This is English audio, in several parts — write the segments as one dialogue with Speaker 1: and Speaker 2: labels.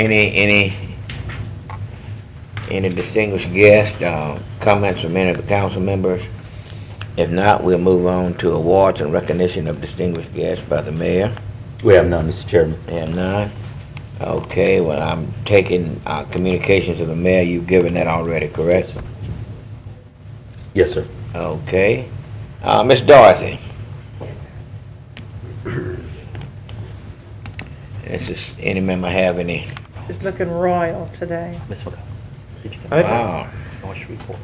Speaker 1: Any, any, any distinguished guests, uh, comments from any of the council members? If not, we'll move on to awards and recognition of distinguished guests by the mayor.
Speaker 2: We have none, Mr. Chairman.
Speaker 1: And none? Okay, well, I'm taking, uh, communications of the mayor, you've given that already, correct?
Speaker 2: Yes, sir.
Speaker 1: Okay. Uh, Miss Dorothy? This is, any member have any?
Speaker 3: She's looking royal today.
Speaker 4: Miss McCollum, did you get
Speaker 3: Okay.
Speaker 1: Wow.
Speaker 4: March report?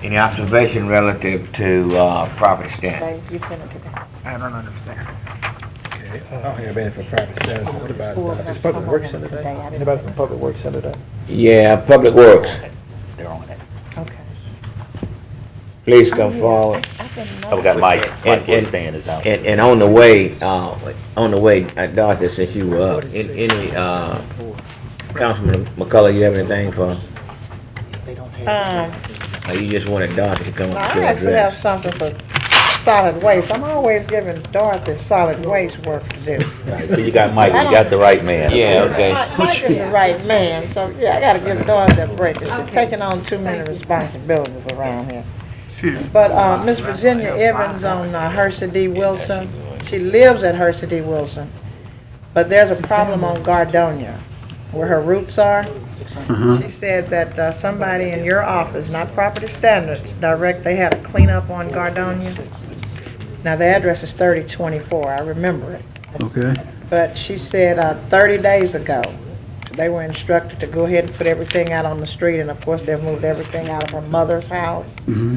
Speaker 1: Any observation relative to uh, property standards?
Speaker 3: Thank you, Senator.
Speaker 5: I don't understand. uh, I don't have anything for private status. What about, uh, is Public Works Center today? Anybody from Public Works Center today?
Speaker 1: Yeah, Public Works,
Speaker 4: They're on it.
Speaker 3: Okay.
Speaker 1: please come forward.
Speaker 2: Oh, we got Mike. Mike
Speaker 1: And- and-
Speaker 2: Westan is out.
Speaker 1: And, and on the way, uh, on the way, uh, Dorothy, since you were up, an- any, uh, Councilman McCullough, you have anything for,
Speaker 3: Um,
Speaker 1: or you just wanted Dorothy to come up
Speaker 3: I
Speaker 1: to
Speaker 3: actually have
Speaker 1: address?
Speaker 3: something for solid waste. I'm always giving Dorothy solid waste work to do.
Speaker 2: Right, So you got Mike, you got the right man.
Speaker 1: Yeah, okay.
Speaker 3: Mike Mike is the right man, so, yeah, I gotta give Dorothy a break. She's taking on too many responsibilities around here. But, uh, Miss Virginia Evans on uh, Hersey D. Wilson, she lives at Hersey D. Wilson, but there's a problem on Gardonia, where her roots are. She said that uh, somebody in your office, not property standards, direct, they had a cleanup on Gardonia. Now, the address is thirty twenty-four, I remember it.
Speaker 5: Okay.
Speaker 3: But she said uh, 30 days ago, they were instructed to go ahead and put everything out on the street, and of course, they've moved everything out of her mother's house.
Speaker 5: Mm-hmm.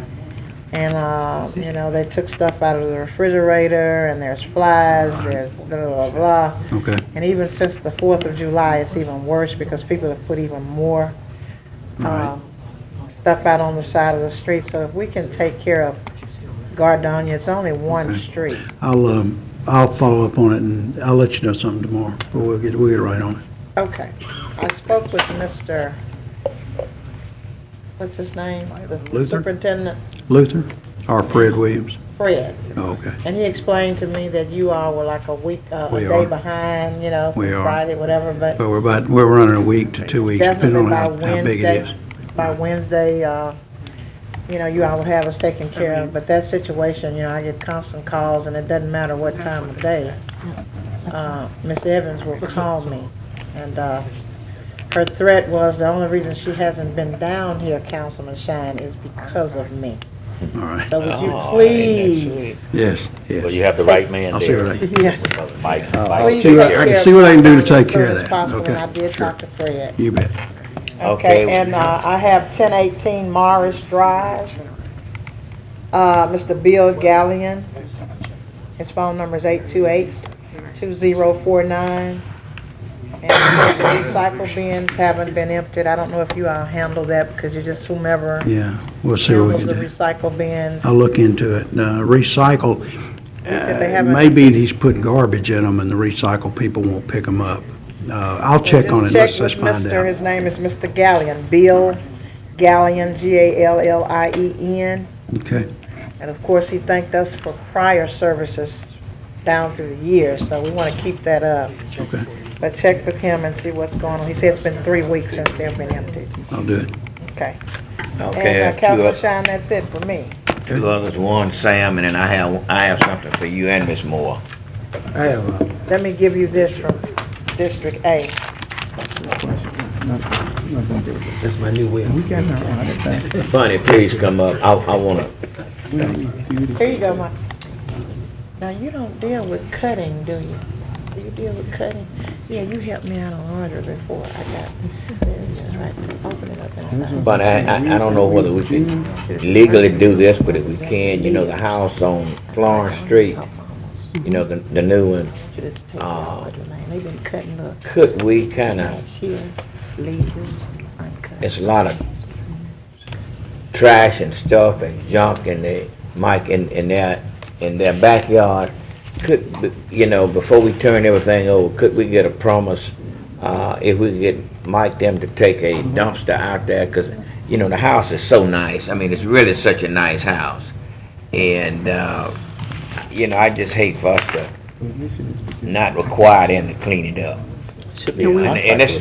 Speaker 3: And, uh, you know, they took stuff out of the refrigerator, and there's flies, there's blah, blah, blah.
Speaker 5: Okay.
Speaker 3: And even since the 4th of July, it's even worse because people have put even more
Speaker 5: Right.
Speaker 3: um, stuff out on the side of the street. So if we can take care of Gardonia, it's only one
Speaker 5: Okay.
Speaker 3: street.
Speaker 5: I'll, um, I'll follow up on it and I'll let you know something tomorrow, but we'll get, we'll get right on it.
Speaker 3: Okay, I spoke with Mr., what's his name? The
Speaker 5: Luther?
Speaker 3: Superintendent
Speaker 5: Luther or Fred Williams?
Speaker 3: Fred,
Speaker 5: Oh, Okay,
Speaker 3: and he explained to me that you all were like a week, uh, a
Speaker 5: We
Speaker 3: day
Speaker 5: are.
Speaker 3: behind, you know,
Speaker 5: We are.
Speaker 3: Friday, whatever, but
Speaker 5: but we're about, we're running a week to two weeks, depending
Speaker 3: definitely
Speaker 5: on
Speaker 3: by
Speaker 5: how, how big it is.
Speaker 3: Wednesday, by Wednesday, uh, you know, you all would have us taken care of, but that situation, you know, I get constant calls, and it doesn't matter what time of day. Uh, Ms. Evans will call me, and, uh, her threat was, the only reason she hasn't been down here, Councilman Shine, is because of me.
Speaker 5: All right,
Speaker 3: So would you
Speaker 1: Oh, ain't that
Speaker 3: please,
Speaker 5: yes, yes.
Speaker 2: Well, you have the right man
Speaker 5: I'll see
Speaker 2: there.
Speaker 5: what I can,
Speaker 3: yeah.
Speaker 2: Mike,
Speaker 3: please
Speaker 2: Mike.
Speaker 5: see what-
Speaker 3: take
Speaker 5: I can
Speaker 3: care
Speaker 5: see
Speaker 3: of
Speaker 5: what I can do
Speaker 3: Gardonia
Speaker 5: to
Speaker 3: as
Speaker 5: take care of
Speaker 3: soon as
Speaker 5: that.
Speaker 3: possible, and
Speaker 5: Okay,
Speaker 3: I did
Speaker 5: sure.
Speaker 3: talk to Fred.
Speaker 5: you bet.
Speaker 1: Okay.
Speaker 3: Okay, and uh, I have ten eighteen Morris Drive. Uh, Mr. Bill Gallion. His phone number is eight two eight two zero four nine. And the recycle bins haven't been emptied. I don't know if you all handle that because you're just whomever
Speaker 5: Yeah, we'll see what we
Speaker 3: handles the
Speaker 5: can do.
Speaker 3: recycle bins.
Speaker 5: I'll look into it. Uh, recycle,
Speaker 3: said they
Speaker 5: uh,
Speaker 3: haven't-
Speaker 5: maybe he's putting garbage in them and the recycle people won't pick them up. Uh, I'll check on it,
Speaker 3: Just
Speaker 5: let's,
Speaker 3: check
Speaker 5: let's
Speaker 3: with
Speaker 5: find
Speaker 3: Mr.
Speaker 5: out.
Speaker 3: His name is Mr. Gallion, Bill Gallion, G-A-L-L-I-E-N.
Speaker 5: Okay,
Speaker 3: And of course, he thanked us for prior services down through the years, so we want to keep that up.
Speaker 5: okay,
Speaker 3: But check with him and see what's going on. He said it's been three weeks since they've been emptied.
Speaker 5: I'll do it.
Speaker 3: Okay.
Speaker 1: Okay,
Speaker 3: And uh,
Speaker 1: two
Speaker 3: Councilman
Speaker 1: oth-
Speaker 3: Shine, that's it for me.
Speaker 1: two others, one Sam, and then I have, I have something for you and Miss Moore.
Speaker 6: I have a,
Speaker 3: Let me give you this from District A.
Speaker 6: that's my new way. We got
Speaker 1: Bunny, please come up, I, I wanna,
Speaker 3: Here you go, Mike. Now, you don't deal with cutting, do you? Do you deal with cutting? Yeah, you helped me out on laundry before. I got, there it is, right, open it up inside.
Speaker 1: But I, I, I don't know whether we should legally do this, but if we can, you know, the house on Florence Street, Oh. you know, the, the new one,
Speaker 3: Should have taken out of the lane. They've been cutting up.
Speaker 1: could we kinda,
Speaker 3: Here, leaves uncut.
Speaker 1: it's a lot of trash and stuff and junk in the, Mike, in, in their, in their backyard. Could, b- you know, before we turn everything over, could we get a promise, uh, if we could get Mike them to take a dumpster out there? Cause, you know, the house is so nice, I mean, it's really such a nice house. And, uh, you know, I just hate for us to not require them to clean it up.
Speaker 7: Should be a
Speaker 2: And, and that's,